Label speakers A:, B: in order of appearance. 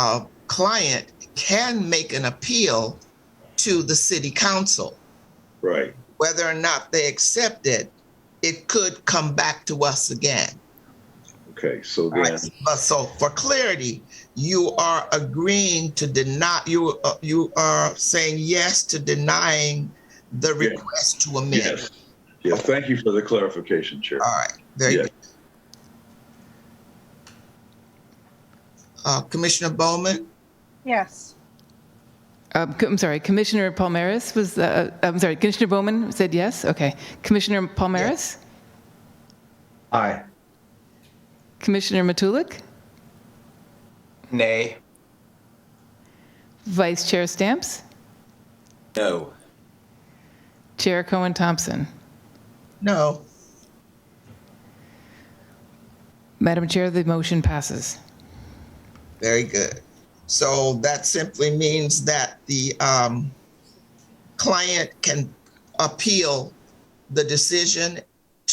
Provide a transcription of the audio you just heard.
A: uh, client can make an appeal to the city council.
B: Right.
A: Whether or not they accept it, it could come back to us again.
B: Okay. So
A: All
B: then,
A: right, But so for clarity, you are agreeing to deny, you, uh, you are saying yes to denying the
B: Yeah.
A: request to amend.
B: yes. Yeah. Thank you for the clarification, Chair.
A: All right, there you
B: Yeah.
A: go. Uh, Commissioner Bowman?
C: Yes.
D: Um, co- I'm sorry, Commissioner Palmeris was, uh, I'm sorry, Commissioner Bowman said yes? Okay. Commissioner Palmeris?
E: Aye.
D: Commissioner Matulik?
E: Nay.
D: Vice Chair Stamps?
E: No.
D: Chair Cohen Thompson?
A: No.
D: Madam Chair, the motion passes.
A: Very good. So that simply means that the um, client can appeal the decision